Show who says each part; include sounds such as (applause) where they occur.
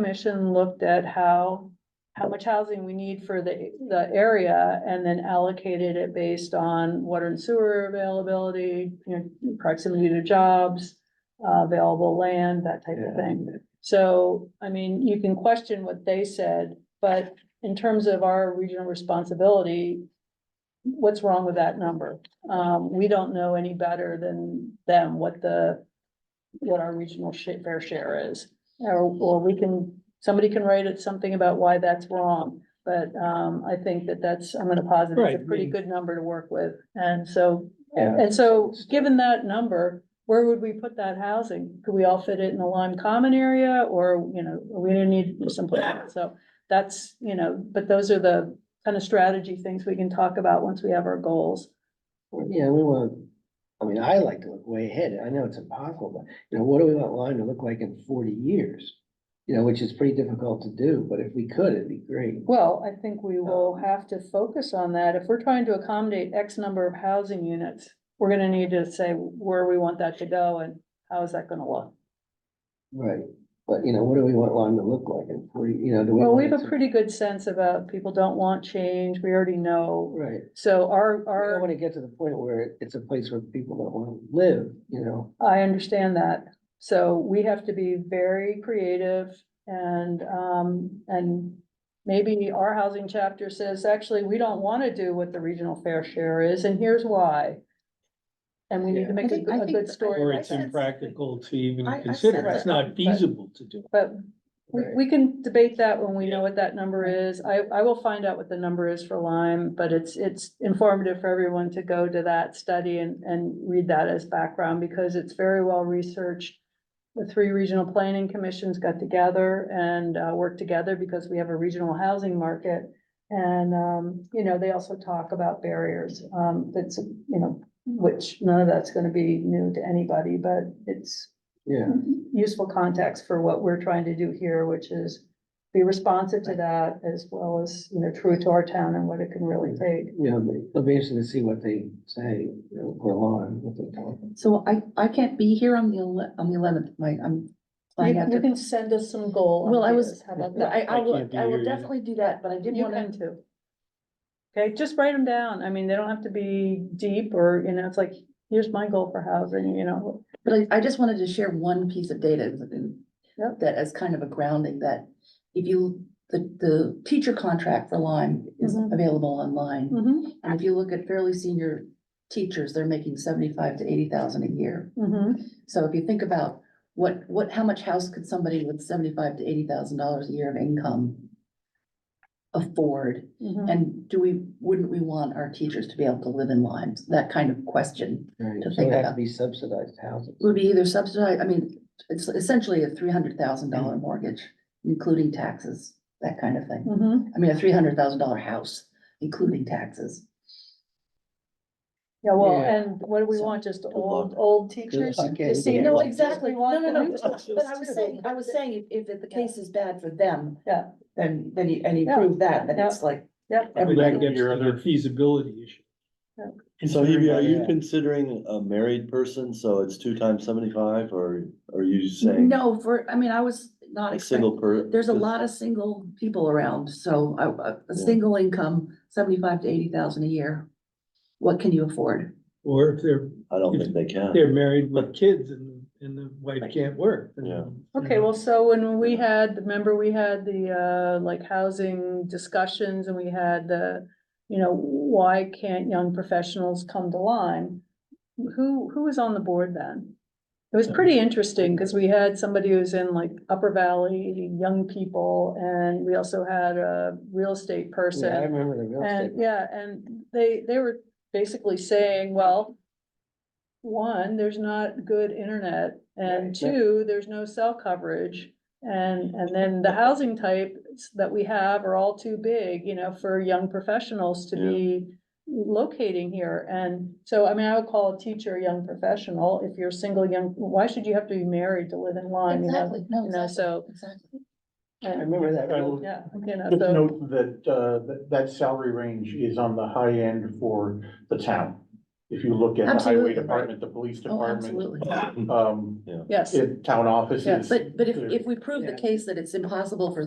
Speaker 1: commission looked at how, how much housing we need for the, the area and then allocated it based on water and sewer availability, you know, proximity to jobs, uh, available land, that type of thing. So, I mean, you can question what they said, but in terms of our regional responsibility, what's wrong with that number? Um, we don't know any better than them what the, what our regional sha- fair share is. Or, or we can, somebody can write it something about why that's wrong, but, um, I think that that's, I'm gonna posit
Speaker 2: Right,
Speaker 1: it's
Speaker 2: I
Speaker 1: a pretty
Speaker 2: mean-
Speaker 1: good number to work with. And so,
Speaker 3: Yeah.
Speaker 1: and so, given that number, where would we put that housing? Could we all fit it in the Lime Common area, or, you know, we didn't need someplace else, so that's, you know, but those are the kind of strategy things we can talk about once we have our goals.
Speaker 3: Well, Yeah, we want, I mean, I like to look way ahead. I know it's impossible, but you know, what do we want Lyme to look like in forty years? You know, which is pretty difficult to do, but if we could, it'd be great.
Speaker 1: Well, I think we will have to focus on that, if we're trying to accommodate X number of housing units, we're gonna need to say where we want that to go and how is that gonna look?
Speaker 3: Right, but you know, what do we want Lyme to look like in forty, you know, do we?
Speaker 1: Well, we have
Speaker 3: want it
Speaker 1: a
Speaker 3: to-
Speaker 1: pretty good sense about people don't want change, we already know,
Speaker 3: Right,
Speaker 1: so our,
Speaker 3: I
Speaker 1: our.
Speaker 3: don't wanna get to the point where it's a place where people don't wanna live, you know?
Speaker 1: I understand that. So we have to be very creative and, um, and maybe our housing chapter says, actually, we don't want to do what the regional fair share is, and here's why. And we need to
Speaker 3: Yeah.
Speaker 1: make
Speaker 4: I
Speaker 1: a
Speaker 4: think-
Speaker 1: good-
Speaker 4: I
Speaker 1: a
Speaker 4: think-
Speaker 1: good
Speaker 2: Or
Speaker 1: story.
Speaker 4: I
Speaker 2: it's
Speaker 4: said
Speaker 2: impractical to even
Speaker 4: I- I
Speaker 2: consider,
Speaker 4: said
Speaker 2: it's
Speaker 1: that.
Speaker 2: not feasible to do.
Speaker 1: But we,
Speaker 3: Right.
Speaker 1: we can debate that when we know what that number is. I, I will find out what the number is for Lyme, but it's, it's informative for everyone to go to that study and, and read that as background because it's very well researched. The three regional planning commissions got together and, uh, worked together because we have a regional housing market. And, um, you know, they also talk about barriers, um, that's, you know, which none of that's gonna be new to anybody, but it's
Speaker 3: Yeah,
Speaker 1: useful context for what we're trying to do here, which is be responsive to that as well as, you know, true to our town and what it can really take.
Speaker 3: you know, it'll be interesting to see what they say, you know, for Lyme, what they talk.
Speaker 4: So I, I can't be here on the ele- on the eleventh, like, I'm.
Speaker 1: You
Speaker 4: flying out
Speaker 1: you
Speaker 4: to-
Speaker 1: can send us some goal
Speaker 4: Well, I was-
Speaker 1: ideas. How about
Speaker 4: No, I,
Speaker 1: that?
Speaker 4: I
Speaker 2: I
Speaker 4: will,
Speaker 2: can't be
Speaker 4: I
Speaker 2: here
Speaker 4: will
Speaker 2: either.
Speaker 4: definitely do that, but I did
Speaker 1: You
Speaker 4: wanna,
Speaker 1: can too. Okay, just write them down. I mean, they don't have to be deep or, you know, it's like, here's my goal for housing, you know.
Speaker 4: but I, I just wanted to share one piece of data. that-
Speaker 1: Yep.
Speaker 4: That as kind of a grounding that if you, the, the teacher contract for Lyme is
Speaker 1: Mhm.
Speaker 4: available online.
Speaker 1: Mm-hmm,
Speaker 4: And if you look at fairly senior teachers, they're making seventy-five to eighty thousand a year.
Speaker 1: mm-hmm.
Speaker 4: So if you think about what, what, how much house could somebody with seventy-five to eighty thousand dollars a year of income afford?
Speaker 1: Mm-hmm.
Speaker 4: And do we, wouldn't we want our teachers to be able to live in Lyme? That kind of question.
Speaker 3: Right,
Speaker 4: To
Speaker 3: so
Speaker 4: think
Speaker 3: it has to
Speaker 4: about.
Speaker 3: be subsidized housing.
Speaker 4: It Would be either subsidized, I mean, it's essentially a three hundred thousand dollar mortgage, including taxes, that kind of thing.
Speaker 1: Mm-hmm.
Speaker 4: I mean, a three hundred thousand dollar house, including taxes.
Speaker 1: Yeah, well,
Speaker 3: Yeah.
Speaker 1: and what do we
Speaker 4: So-
Speaker 1: want? Just
Speaker 3: luck.
Speaker 1: old, old teachers?
Speaker 3: luck, yeah,
Speaker 1: The
Speaker 3: you
Speaker 1: senior
Speaker 3: know,
Speaker 1: teachers? We want new teachers,
Speaker 4: But I was
Speaker 1: too.
Speaker 4: saying, I was saying, if, if the case is bad for them.
Speaker 1: Yeah.
Speaker 4: Then, then you, and you
Speaker 1: Yeah.
Speaker 4: prove that, then it's like.
Speaker 1: Yep.
Speaker 2: But
Speaker 4: everybody-
Speaker 2: that gets to the feasibility issue.
Speaker 1: Yeah.
Speaker 5: So Hebe, are you
Speaker 3: Yeah.
Speaker 5: considering a married person, so it's two times seventy-five, or are you saying?
Speaker 4: No, for, I mean, I was not
Speaker 5: a
Speaker 4: expecting.
Speaker 5: Single per?
Speaker 4: There's a lot of single people around, so a, a, a
Speaker 5: Yeah.
Speaker 4: single income, seventy-five to eighty thousand a year. What can you afford?
Speaker 2: Or if they're,
Speaker 5: I don't think they can.
Speaker 2: they're married with kids and, and the wife can't work. then,
Speaker 5: Yeah.
Speaker 2: you
Speaker 1: Okay,
Speaker 2: know,
Speaker 1: well, so when we had, remember we had the, uh, like housing discussions and we had the, you know, why can't young professionals come to Lyme? Who, who was on the board then? It was pretty interesting because we had somebody who's in like Upper Valley, young people, and we also had a real estate person.
Speaker 3: Yeah, I remember the real estate.
Speaker 1: And, yeah, and they, they were basically saying, well, one, there's not good internet, and
Speaker 3: Right, yeah.
Speaker 1: two, there's no cell coverage. And, and then the housing types that we have are all too big, you know, for young professionals to
Speaker 5: Yeah.
Speaker 1: be locating here. And so, I mean, I would call a teacher a young professional. If you're a single young, why should you have to be married to live in Lyme? you know?
Speaker 4: no,
Speaker 1: You know, so,
Speaker 4: exactly.
Speaker 3: I
Speaker 1: and,
Speaker 3: remember that.
Speaker 6: I
Speaker 3: real-
Speaker 6: will-
Speaker 1: yeah,
Speaker 3: (laughs)
Speaker 1: you know,
Speaker 6: Just
Speaker 1: so,
Speaker 6: note that, uh, that, that salary range is on the high end for the town. if you look at the
Speaker 4: Absolutely,
Speaker 6: highway
Speaker 4: right.
Speaker 6: department, the police
Speaker 4: Oh,
Speaker 6: department,
Speaker 4: absolutely.
Speaker 6: um,
Speaker 5: (laughs)
Speaker 1: Yes.
Speaker 6: in town
Speaker 1: Yes.
Speaker 6: offices.
Speaker 4: But, but if,
Speaker 6: There's-
Speaker 4: if we prove the
Speaker 1: Yeah.
Speaker 4: case that it's impossible for